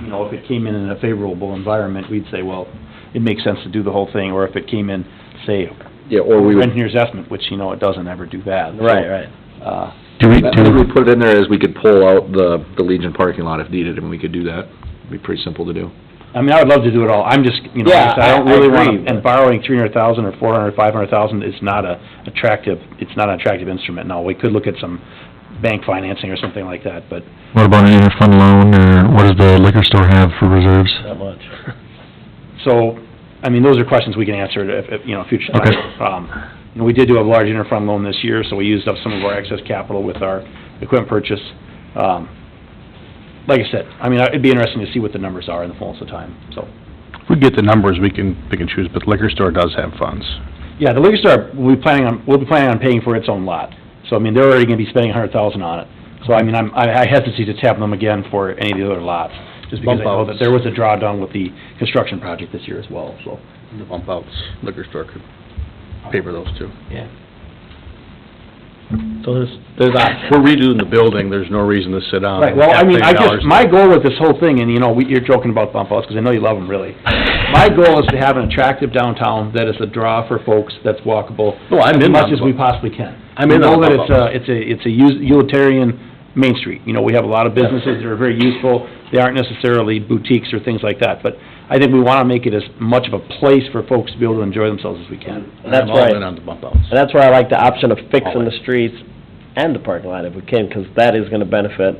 you know, if it came in in a favorable environment, we'd say, well, it makes sense to do the whole thing, or if it came in, say, Yeah, or we would, engineer's estimate, which, you know, it doesn't ever do that. so, right, right. Uh, Do we, I think do, we put it in there as we could pull out the, the Legion parking lot if needed, and we could do that. It'd be pretty simple to do. I mean, I would love to do it all, I'm just, you know, Yeah, I don't I- I really agree, want, but- and borrowing three hundred thousand or four hundred, five hundred thousand is not a attractive, it's not an attractive instrument, no, we could look at some bank financing or something like that, but what about an interfund loan, or what does the liquor store have for reserves? Not much. So, I mean, those are questions we can answer at, at, you know, future Okay. time. Um, You know, we did do a large interfund loan this year, so we used up some of our excess capital with our equipment purchase. Um, Like I said, I mean, it'd be interesting to see what the numbers are in the fullness of time, so. If we get the numbers, we can pick and choose, but liquor store does have funds. Yeah, the liquor store, we'll be planning on, we'll be planning on paying for its own lot. So, I mean, they're already gonna be spending a hundred thousand on it. So, I mean, I'm, I I hesitate to tap them again for any of the other lots, just because Bump I know outs. that there was a drawdown with the construction project this year as well, so. The bump outs, liquor store could pay for those too. So there's, there's options. We're redoing the building, there's no reason to sit down. Right, well, I and mean, pay I dollars. just, my goal with this whole thing, and you know, we- you're joking about bump outs, because I know you love them, really. My goal is to have an attractive downtown that is a draw for folks, that's walkable. No, I'm in on As much as we bump- possibly can. I'm in We on know that bump it's uh, a, it's a, it's a us- utilitarian Main Street, you know, we have a lot of businesses that are very useful, they aren't necessarily boutiques or things like that, but I think we want to make it as much of a place for folks to be able to enjoy themselves as we can. That's I'm all in right. on the bump outs. And that's where I like the option of fixing the streets and the parking lot if we can, because that is gonna benefit.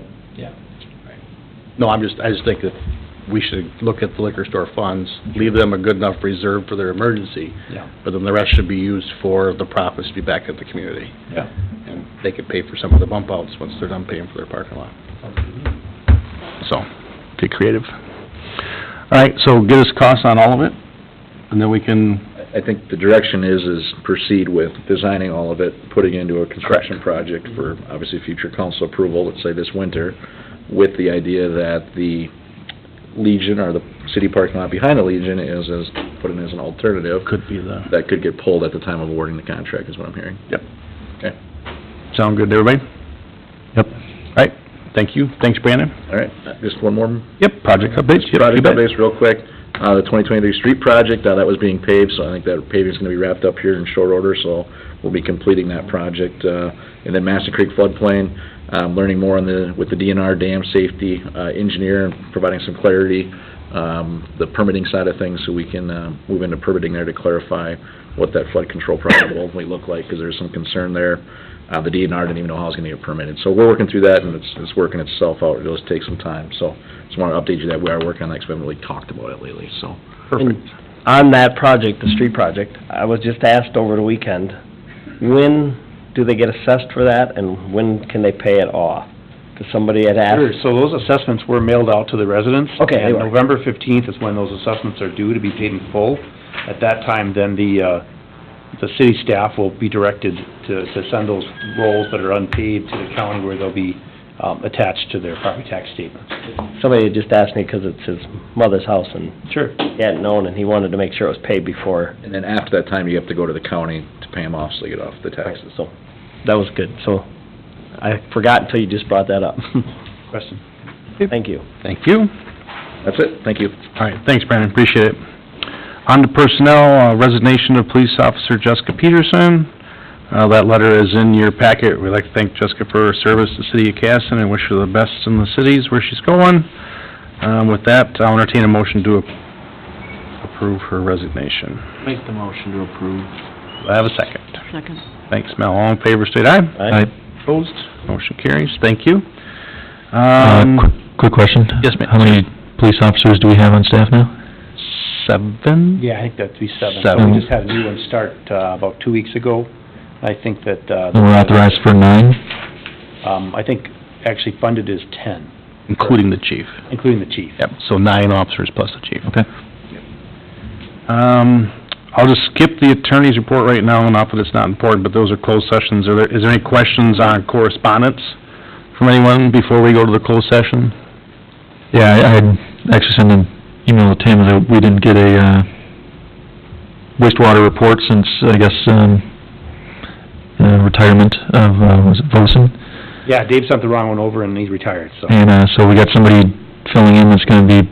No, I'm just, I just think that we should look at the liquor store funds, leave them a good enough reserve for their emergency, Yeah. but then the rest should be used for the profits to be back at the community. Yeah. And they could pay for some of the bump outs once they're done paying for their parking lot. So, Get creative. All right, so get us costs on all of it, and then we can, I- I think the direction is, is proceed with designing all of it, putting it into a construction project for, obviously, future council approval, let's say this winter, with the idea that the Legion, or the city parking lot behind the Legion is, is put in as an alternative, could be the, that could get pulled at the time of awarding the contract, is what I'm hearing. sound good to everybody? Yep. All right, thank you, thanks Brandon. All right, just one more Yep, project updates, yep, you project bet. updates real quick. Uh, the twenty twenty-three street project, uh, that was being paved, so I think that paving's gonna be wrapped up here in short order, so we'll be completing that project. Uh, and then Master Creek floodplain, um, learning more on the, with the DNR dam safety, uh, engineer, and providing some clarity, um, the permitting side of things, so we can, uh, move into permitting there to clarify what that flood control project will ultimately look like, because there's some concern there. Uh, the DNR didn't even know how it was gonna get permitted, so we're working through that, and it's, it's working itself out, it'll just take some time, so. Just want to update you that we are working on that, because we haven't really talked about it lately, so. And On that project, the street project, I was just asked over the weekend, when do they get assessed for that and when can they pay it off? Because somebody had Sure, asked, so those assessments were mailed out to the residents. Okay, they And were. November fifteenth is when those assessments are due to be paid in full. At that time, then the, uh, the city staff will be directed to, to send those rolls that are unpaid to the county where they'll be, um, attached to their property tax statements. somebody had just asked me because it's his mother's house and Sure. he hadn't known and he wanted to make sure it was paid before, And then after that time, you have to go to the county to pay them off, so you get off the taxes. so that was good. So I forgot until you just brought that up. Question? Thank you. Thank you. That's it, thank you. All right, thanks, Brandon, appreciate it. On to personnel, uh, resignation of police officer Jessica Peterson. Uh, That letter is in your packet. We'd like to thank Jessica for her service to the city of Casson and wish her the best in the cities where she's going. Um, With that, I'll entertain a motion to a- approve her resignation. make the motion to approve. Do I have a second? Second. Thanks, Mel. All in favor, state aye. Aye. Opposed? Motion carries. Thank you. Uh, Um, quick- Quick question? Yes, ma'am. How many police officers do we have on staff now? Seven? Yeah, I think that'd be seven. So Seven. we just had a new one start, uh, about two weeks ago. I think that, uh. And we're authorized for nine? Um, I think actually funded is ten, Including the chief. including the chief. Yep, so nine officers plus the chief. Okay. Um, I'll just skip the attorney's report right now, and not that it's not important, but those are closed sessions. Are there, is there any questions on correspondence from anyone before we go to the closed session? Yeah, I I had actually sent an email to Tim that we didn't get a uh, wastewater report since, I guess, um, uh, retirement of, uh, was it Volson? Yeah, Dave sent the wrong one over and he's retired, so. And uh, so we got somebody filling in that's gonna be